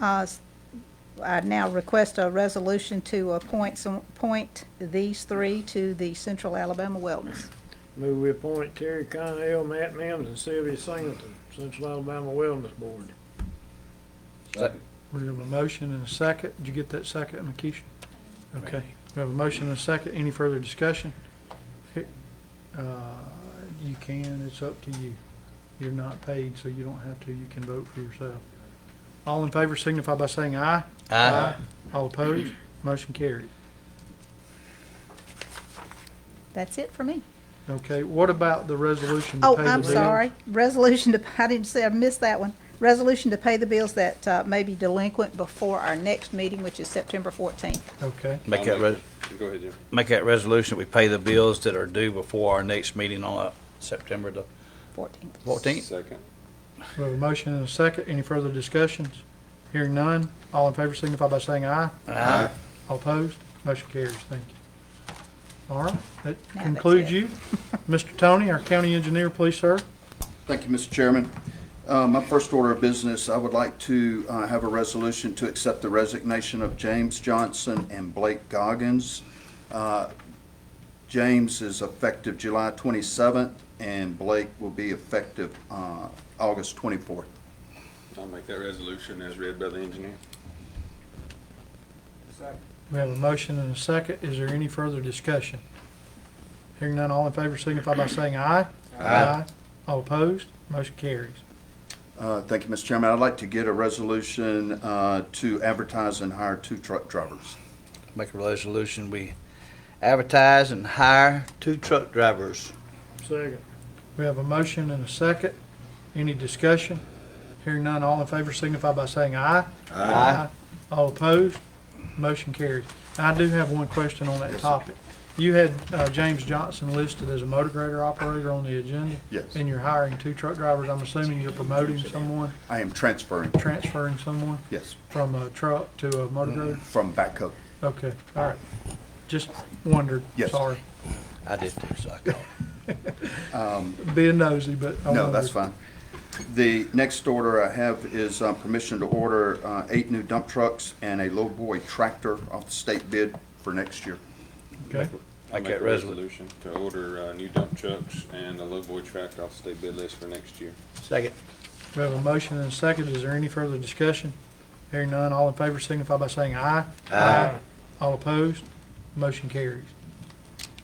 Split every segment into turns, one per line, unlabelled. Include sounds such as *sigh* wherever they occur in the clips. uh, s- I now request a resolution to appoint some, appoint these three to the Central Alabama Wellness.
Move we appoint Terry Connell, Matt Mims, and Sylvia Singleton, Central Alabama Wellness Board.
Second.
We have a motion and a second. Did you get that second, Makisha? Okay, we have a motion and a second. Any further discussion? Here- uh, You can, it's up to you. You're not paid, so you don't have to. You can vote for yourself. All in favor signify by saying aye. All opposed, motion carried.
That's it for me.
Okay, what about the resolution to
Oh,
pay the
I'm
bill?
sorry. Resolution to, *laughs* I didn't say, I missed that one. Resolution to pay the bills that uh, may be delinquent before our next meeting, which is September 14th.
Okay,
Make that, re-
Go ahead, Jim.
make that resolution, we pay the bills that are due before our next meeting on uh, September the
14th.
fourteenth.
Second.
we have a motion and a second. Any further discussions? Hearing none. All in favor signify by saying aye.
Aye.
All opposed? Motion carries. Thank you. All right, that
Now that's
concludes
it. *laughs*
you. Mr. Tony, our county engineer, please, sir.
Thank you, Mr. Chairman. Uh, My first order of business, I would like to uh, have a resolution to accept the resignation of James Johnson and Blake Goggins. Uh, James is effective July 27th, and Blake will be effective uh, August 24th.
I'll make that resolution as read by the engineer.
We have a motion and a second. Is there any further discussion? Hearing none, all in favor signify by saying aye. Aye. All opposed? Motion carries.
Uh, Thank you, Mr. Chairman. I'd like to get a resolution uh, to advertise and hire two truck drivers.
Make a resolution, we advertise and hire two truck drivers.
Second.
We have a motion and a second. Any discussion? Hearing none, all in favor signify by saying aye. Aye. All opposed? Motion carries. I do have one question on that topic. You had uh, James Johnson listed as a motor grader operator on the agenda.
Yes.
And you're hiring two truck drivers. I'm assuming you're promoting someone,
I am transferring,
transferring someone
yes,
from a truck to a motor grader?
from backhoe.
Okay, all right. Just wondered.
Mm-hmm. Yes.
Sorry.
I did too, so I called.
Being nosy, but I
No, that's
wondered.
fine. The next order I have is uh, permission to order uh, eight new dump trucks and a lowboy tractor off the state bid for next year.
Okay.
I'll
Make that
a
resolu-
resolution to order uh, new dump trucks and a lowboy tractor off state bid list for next year.
Second.
We have a motion and a second. Is there any further discussion? Hearing none, all in favor signify by saying aye. Aye. All opposed? Motion carries.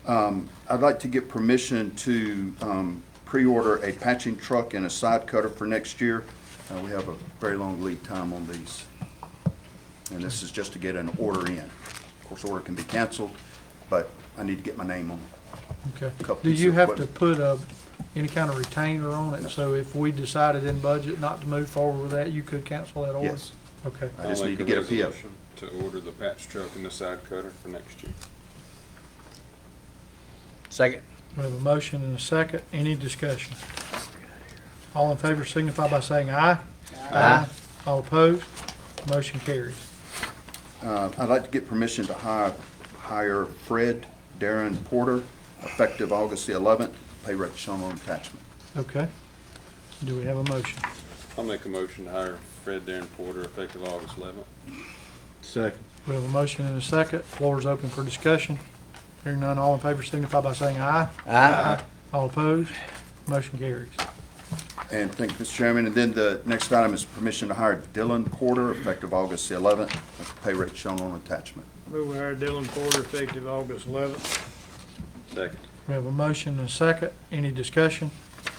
I'd like to get permission to um, pre-order a patching truck and a side cutter for next year. Uh, We have a very long lead time on these. And this is just to get an order in. Of course, order can be canceled, but I need to get my name on it.
Okay.
Couple
Do you
pieces of
have to
equipment.
put a, any kind of retainer on it? So if we decided in budget not to move forward with that, you could cancel that order?
Yes.
Okay.
I just
I'll
need to
make
get a PO.
resolution To order the patch truck and the side cutter for next year.
Second.
We have a motion and a second. Any discussion? All in favor signify by saying aye. Aye. All opposed? Motion carries.
Uh, I'd like to get permission to hire, hire Fred Darren Porter, effective August the 11th, pay rate shown on attachment.
Okay. Do we have a motion?
I'll make a motion to hire Fred Darren Porter effective August eleventh.
Second.
We have a motion and a second. Floor is open for discussion. Hearing none, all in favor signify by saying aye.
Aye.
All opposed, motion carries.
And thank you, Mr. Chairman. And then the next item is permission to hire Dylan Porter, effective August the 11th, pay rate shown on attachment.
Move we hire Dylan Porter effective August eleventh.
Second.
We have a motion and a second. Any discussion?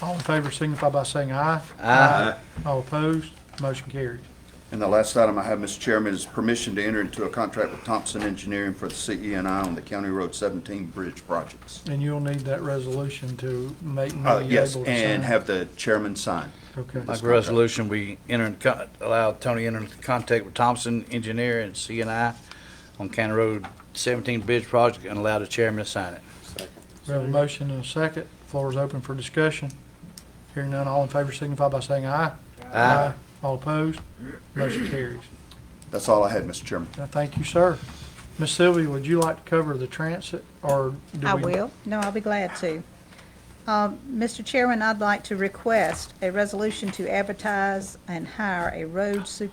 All in favor signify by saying aye.
Aye.
All opposed, motion carries.
And the last item I have, Mr. Chairman, is permission to enter into a contract with Thompson Engineering for the CENI on the County Road 17 bridge projects.
And you'll need that resolution to make me
Uh,
able to
Yes,
sign.
and have the chairman sign.
Okay,
Make a resolution, we enter in, con- allow Tony enter into contact with Thompson Engineer and CNI on County Road seventeen bridge project and allow the chairman to sign it.
Second.
we have a motion and a second. Floor is open for discussion. Hearing none, all in favor signify by saying aye. Aye. All opposed, motion carries.
That's all I had, Mr. Chairman.
Uh, Thank you, sir. Miss Sylvia, would you like to cover the transit, or do
I
we-
will. No, I'll be glad to. Um, Mr. Chairman, I'd like to request a resolution to advertise and hire a road super,